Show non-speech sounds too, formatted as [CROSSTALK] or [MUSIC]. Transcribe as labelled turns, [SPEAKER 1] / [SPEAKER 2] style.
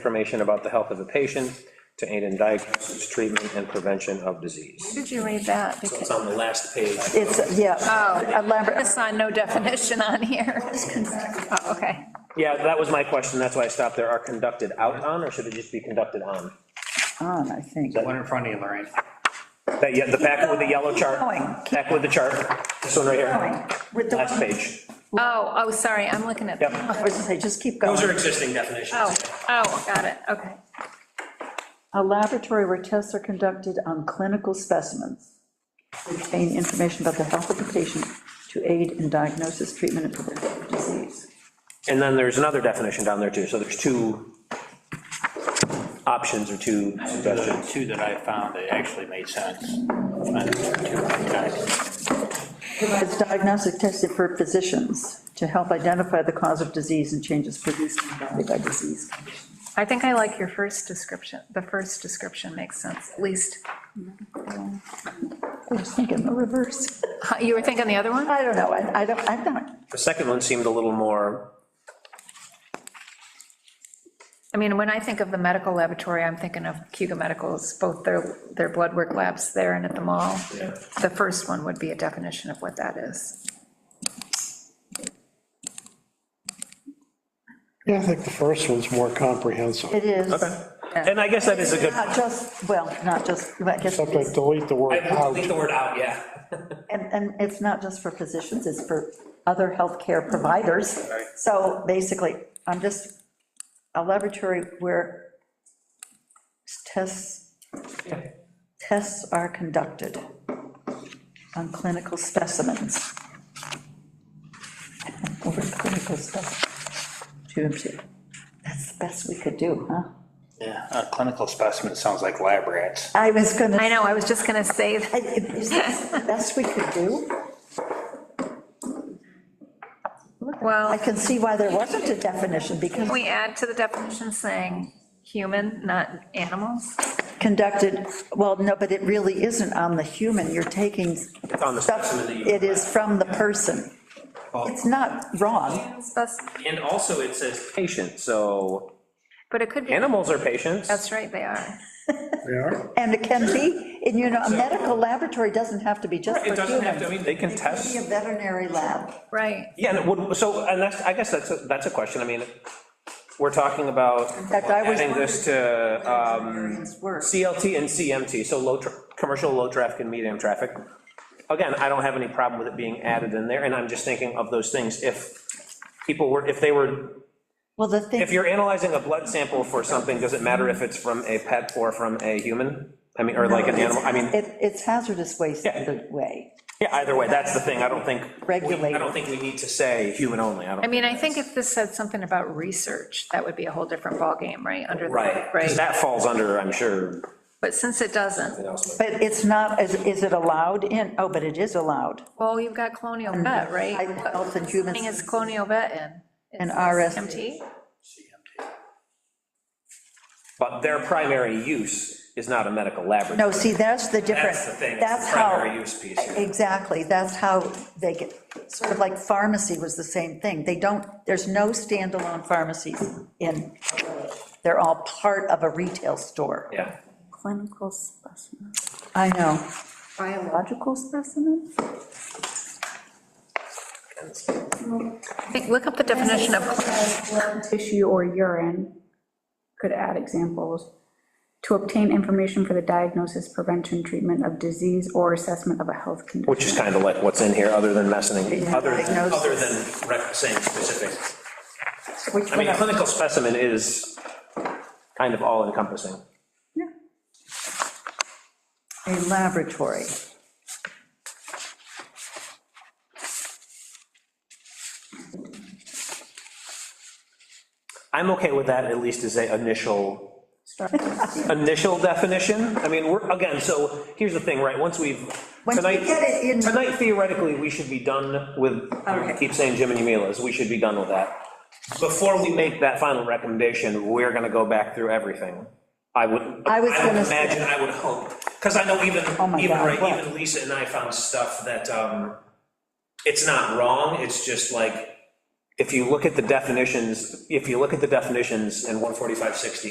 [SPEAKER 1] information about the health of the patient to aid in diagnosis, treatment, and prevention of disease.
[SPEAKER 2] Did you read that? Oh.
[SPEAKER 3] It's
[SPEAKER 2] Because
[SPEAKER 3] on the last page.
[SPEAKER 4] It's, yeah,
[SPEAKER 2] I
[SPEAKER 4] elaborate,
[SPEAKER 2] saw no definition on here. Oh, okay.
[SPEAKER 1] Yeah, that was my question, that's why I stopped there. Are conducted out on, or should it just be conducted on?
[SPEAKER 4] on, I think.
[SPEAKER 5] One in front of you, Lorraine.
[SPEAKER 1] That, yeah, the packet with the yellow chart.
[SPEAKER 4] going, keep
[SPEAKER 1] Packet with the chart, this one right here,
[SPEAKER 4] With the,
[SPEAKER 1] last
[SPEAKER 4] I
[SPEAKER 1] page.
[SPEAKER 2] Oh, oh, sorry, I'm looking at.
[SPEAKER 1] Yep.
[SPEAKER 4] was gonna say, just keep
[SPEAKER 3] Those are
[SPEAKER 4] going.
[SPEAKER 3] existing definitions.
[SPEAKER 2] Oh, oh, got it, okay.
[SPEAKER 4] A laboratory where tests are conducted on clinical specimens. to Obtain information about the health of the patient to aid in diagnosis, treatment, and prevention of disease.
[SPEAKER 1] And then there's another definition down there too, so there's two options or two
[SPEAKER 5] The
[SPEAKER 1] suggestions.
[SPEAKER 5] two that I found that actually made sense. And two times.
[SPEAKER 4] Provides diagnostic testing for physicians to help identify the cause of disease and changes produced by by disease.
[SPEAKER 2] I think I like your first description. The first description makes sense, at least.
[SPEAKER 4] I was thinking the reverse. [LAUGHS]
[SPEAKER 2] Huh, You were thinking the other one?
[SPEAKER 4] I don't know, I I don't, I'm not,
[SPEAKER 1] The second one seemed a little more,
[SPEAKER 2] I mean, when I think of the medical laboratory, I'm thinking of Cuba Medicals, both their, their blood work labs there and at the mall. The first one would be a definition of what that is.
[SPEAKER 6] Yeah, I think the first one's more comprehensive,
[SPEAKER 4] it is.
[SPEAKER 1] okay. And I guess that is a good,
[SPEAKER 4] Not just, well, not just, I guess,
[SPEAKER 6] except I delete the word
[SPEAKER 3] I would
[SPEAKER 6] out.
[SPEAKER 3] delete the word out, yeah.
[SPEAKER 4] and, and it's not just for physicians, it's for other healthcare providers. So basically, I'm just, a laboratory where tests, tests are conducted on clinical specimens. [LAUGHS] Over clinical stuff. That's the best we could do, huh?
[SPEAKER 5] Yeah, a clinical specimen sounds like lab rats.
[SPEAKER 4] I was gonna.
[SPEAKER 2] I know, I was just gonna say, that.
[SPEAKER 4] I- Is this the best we could do? I
[SPEAKER 2] well,
[SPEAKER 4] can see why there wasn't a definition, because
[SPEAKER 2] can we add to the definition saying human, not animals?
[SPEAKER 4] conducted, well, no, but it really isn't on the human, you're taking.
[SPEAKER 1] on the
[SPEAKER 4] stuff-
[SPEAKER 1] specimen that you- Oh.
[SPEAKER 4] It is from the person. It's not wrong.
[SPEAKER 2] Spec-
[SPEAKER 3] And also it says,
[SPEAKER 1] patient, so
[SPEAKER 2] But it could be,
[SPEAKER 1] animals are patients.
[SPEAKER 2] that's right, they are.
[SPEAKER 6] They are?
[SPEAKER 4] And it can be, and you know, a medical laboratory doesn't have to be just
[SPEAKER 3] it
[SPEAKER 4] for
[SPEAKER 3] doesn't have to, I
[SPEAKER 4] human.
[SPEAKER 3] mean,
[SPEAKER 1] They can
[SPEAKER 4] It can
[SPEAKER 1] test.
[SPEAKER 4] be a veterinary lab.
[SPEAKER 2] Right.
[SPEAKER 1] Yeah, and it would, so, and that's, I guess that's, a- that's a question, I mean, we're talking about
[SPEAKER 4] In fact, I was.
[SPEAKER 1] adding this to um,
[SPEAKER 4] Veterinarians work.
[SPEAKER 1] CLT and CMT, so low, tra- commercial, low traffic and medium traffic. Again, I don't have any problem with it being added in there, and I'm just thinking of those things, if people were, if they were,
[SPEAKER 4] Well, the thing.
[SPEAKER 1] if you're analyzing a blood sample for something, does it matter if it's from a pet or from a human? I mean, or like an animal, I mean,
[SPEAKER 4] It, it's hazardous waste
[SPEAKER 1] Yeah.
[SPEAKER 4] either way,
[SPEAKER 1] yeah, either way, that's the thing, I don't think,
[SPEAKER 4] regulated.
[SPEAKER 1] I don't think we need to say human only, I
[SPEAKER 2] I
[SPEAKER 1] don't,
[SPEAKER 2] mean, I think if this said something about research, that would be a whole different ballgame, right? Under the
[SPEAKER 1] right, 'cause that falls under, I'm sure,
[SPEAKER 2] But since it doesn't,
[SPEAKER 1] you know, so-
[SPEAKER 4] But it's not, is, is it allowed in, oh, but it is allowed.
[SPEAKER 2] well, you've got colonial vet, right?
[SPEAKER 4] I health and human
[SPEAKER 2] Thing is
[SPEAKER 4] services.
[SPEAKER 2] colonial vet in.
[SPEAKER 4] And
[SPEAKER 2] It's
[SPEAKER 4] RS.
[SPEAKER 2] CMT?
[SPEAKER 1] but their primary use is not a medical laboratory.
[SPEAKER 4] No, see, that's the difference.
[SPEAKER 1] That's the thing, it's
[SPEAKER 4] That's
[SPEAKER 1] the
[SPEAKER 4] how.
[SPEAKER 1] primary use piece here.
[SPEAKER 4] Exactly, that's how they get, sort of like pharmacy was the same thing. They don't, there's no standalone pharmacies in, they're all part of a retail store.
[SPEAKER 1] Yeah.
[SPEAKER 7] clinical specimen,
[SPEAKER 4] I know.
[SPEAKER 7] biological specimen?
[SPEAKER 2] I think, look up the definition of,
[SPEAKER 7] Blood, Tissue or urine, could add examples, to obtain information for the diagnosis, prevention, treatment of disease, or assessment of a health condition.
[SPEAKER 1] Which is kind of like what's in here, other than messing, other than,
[SPEAKER 4] Diagnosis.
[SPEAKER 1] other than rec- saying specific.
[SPEAKER 4] Which
[SPEAKER 1] I
[SPEAKER 4] one?
[SPEAKER 1] mean, a clinical specimen is kind of all encompassing.
[SPEAKER 4] A laboratory.
[SPEAKER 1] I'm okay with that, at least as a initial, initial definition. I mean, we're, again, so here's the thing, right, once we've,
[SPEAKER 4] Once we
[SPEAKER 1] tonight,
[SPEAKER 4] get it in-
[SPEAKER 1] tonight theoretically, we should be done with, I keep saying Jim and Yamila's, we should be done with that. Before we make that final recommendation, we're gonna go back through everything. I would, I
[SPEAKER 4] I
[SPEAKER 1] would
[SPEAKER 4] was gonna say-
[SPEAKER 1] imagine, I would hope, because I know even,
[SPEAKER 4] Oh my
[SPEAKER 1] even,
[SPEAKER 4] God,
[SPEAKER 1] right,
[SPEAKER 4] what?
[SPEAKER 1] even Lisa and I found stuff that, um, it's not wrong, it's just like, if you look at the definitions, if you look at the definitions in 14560